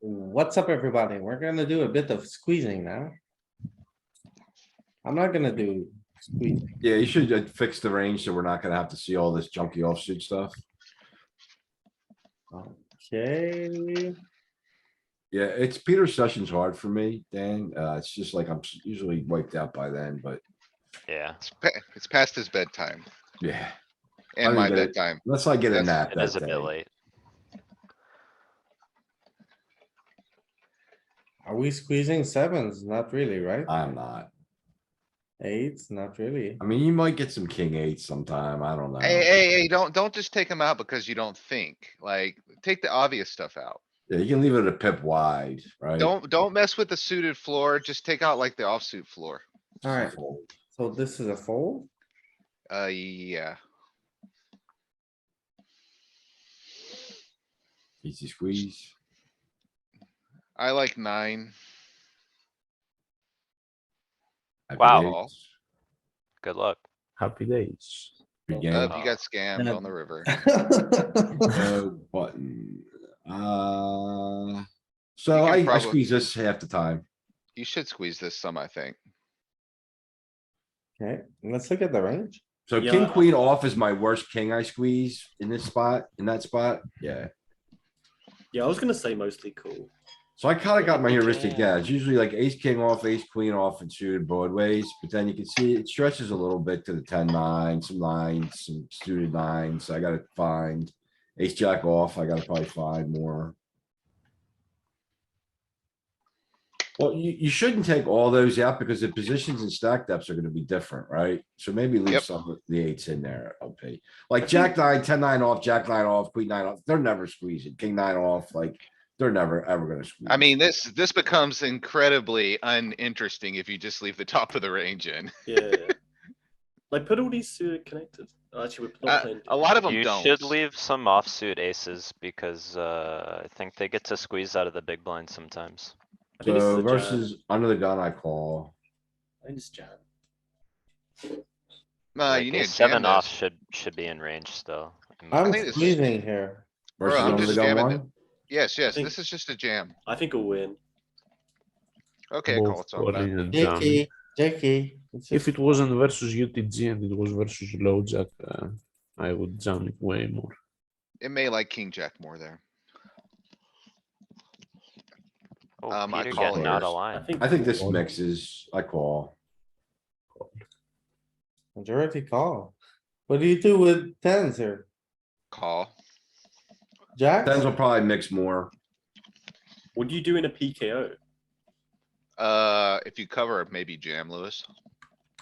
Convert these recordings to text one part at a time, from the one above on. What's up, everybody? We're gonna do a bit of squeezing now. I'm not gonna do squeezing. Yeah, you should uh, fix the range so we're not gonna have to see all this junky offsuit stuff. Okay, Yeah, it's Peter Sessions hard for me, Dan. Uh, it's just like I'm s- usually wiped out by then, but Yeah, It's pa- it's past his bedtime yeah, and my mean, the- bedtime. let's not get a That's- nap it is a that bit day. late. are we squeezing sevens? Not really, right? I'm not. Eights, not really. I mean, you might get some king eight sometime. I don't know. Hey, hey, hey, don't, don't just take him out because you don't think, like, take the obvious stuff out. Yeah, you can leave it a pip wide, right? Don't, don't mess with the suited floor, just take out like the offsuit floor. Alright, Fold. so this is a fold. Uh, yeah, Easy squeeze. I like nine. Happy Wow. days. Good luck. Happy days. Good Uh, game. you got Yeah. scammed on the river. uh, No Button. Uh, so can I, I probab- squeeze this half the time. You should squeeze this some, I think. Okay, let's look at the range. So king, queen off is my worst king I squeeze in this spot, in that spot. Yeah. Yeah, I was gonna say mostly cool. So I kinda got my Yeah. heuristic, yeah, it's usually like ace, king off, ace, queen off and suited broadways, but then you can see it stretches a little bit to the ten, nine, some nines, some suited nines, I gotta find. Ace, jack off, I gotta probably find more. Well, you, you shouldn't take all those out because the positions and stack depths are gonna be different, right? So maybe leave Yep. some of the eights in there, LP. Like jack nine, ten nine off, jack nine off, queen nine off, they're never squeezing, king nine off, like, they're never, ever gonna squeeze. I mean, this, this becomes incredibly uninteresting if you just leave the top of the range in. Yeah. like put all these uh, connected. Oh, actually, we're not Uh, playing. a lot of them You don't. should leave some offsuit aces because, uh, I think they get to squeeze out of the big blind sometimes. I think this is So a jam. Uh, versus under the gun, I call. I think it's jam. Nah, Like, Uh, you need ace to jam Seven off this. should, should be in range still. in my I'm opinion. think it's- squeezing here. Bro, Versus I'm under the just gun jamming one. Yes, yes, think- this is just a jam. I think we'll win. Okay, Both call, it's all body about. and jam. Jackie, Jackie. it's If just- it wasn't versus UTG and it was versus low jack, uh, I would jam it way more. It may like king jack more there. Oh, um, I Peter call getting out here. of I line. think. I think this Call. mixes, I call. Majority call. What do you do with tens here? Call. Jack? Tens will probably mix more. What do you do in a PKO? Uh, if you cover, it, maybe jam, Lewis.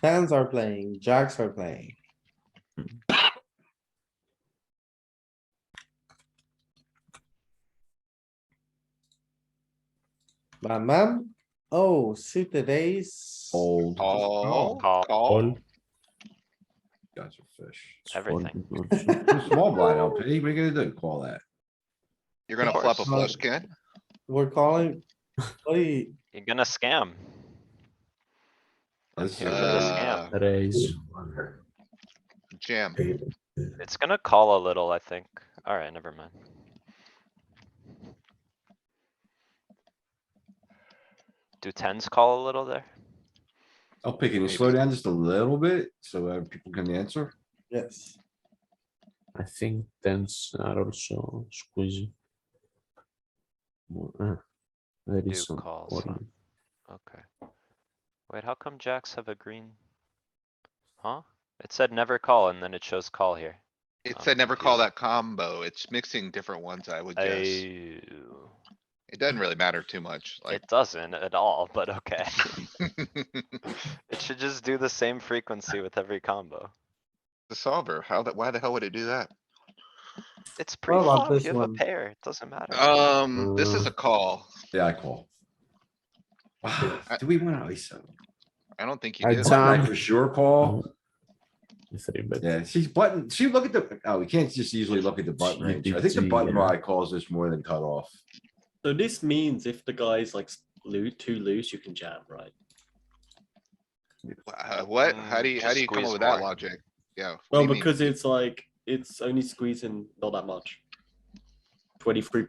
Tens are playing, jacks are playing. My man, oh, suited ace. Old, you Call, Call. call. All. guys are fish. It's Everything. folding also. Small blind LP, what are you gonna do? Call that? You're gonna Of flop a course. flush, Ken? We're calling, what do you, You're gonna scam. This Here is, for the uh, Uh, scam. Raise. Jam. It's gonna call a little, I think. Alright, never mind. Do tens call a little there? LP, can you slow down just a little bit so uh, people can answer? yes, I think tens are also squeezing. More, ah, there Do is some calls, huh? calling. Okay. Wait, how come jacks have a green? Huh? It said never call and then it shows call here. It I'm said never call confused. that combo. It's mixing different ones, I would guess. I, It doesn't really matter too much, like. it doesn't at all, but okay. It should just do the same frequency with every combo. The solver, how that, why the hell would it do that? It's What about pre-flop, this you have a one? pair, it doesn't matter. Um, this is a call. Yeah, I call. Ah, Do we want to ISO? I don't think you I do. jam- I for sure call. Three bet. Yeah, she's button, she look at the, oh, we can't just easily look at the button range. I think the GPG, button yeah. rod calls this more than cut off. So this means if the guy's like loo- too loose, you can jam, right? Uh, What? How Mm, do you, how just do you come squeeze up with that more. logic? Yeah. what do Well, you mean? because it's like it's only squeezing not that much. Twenty three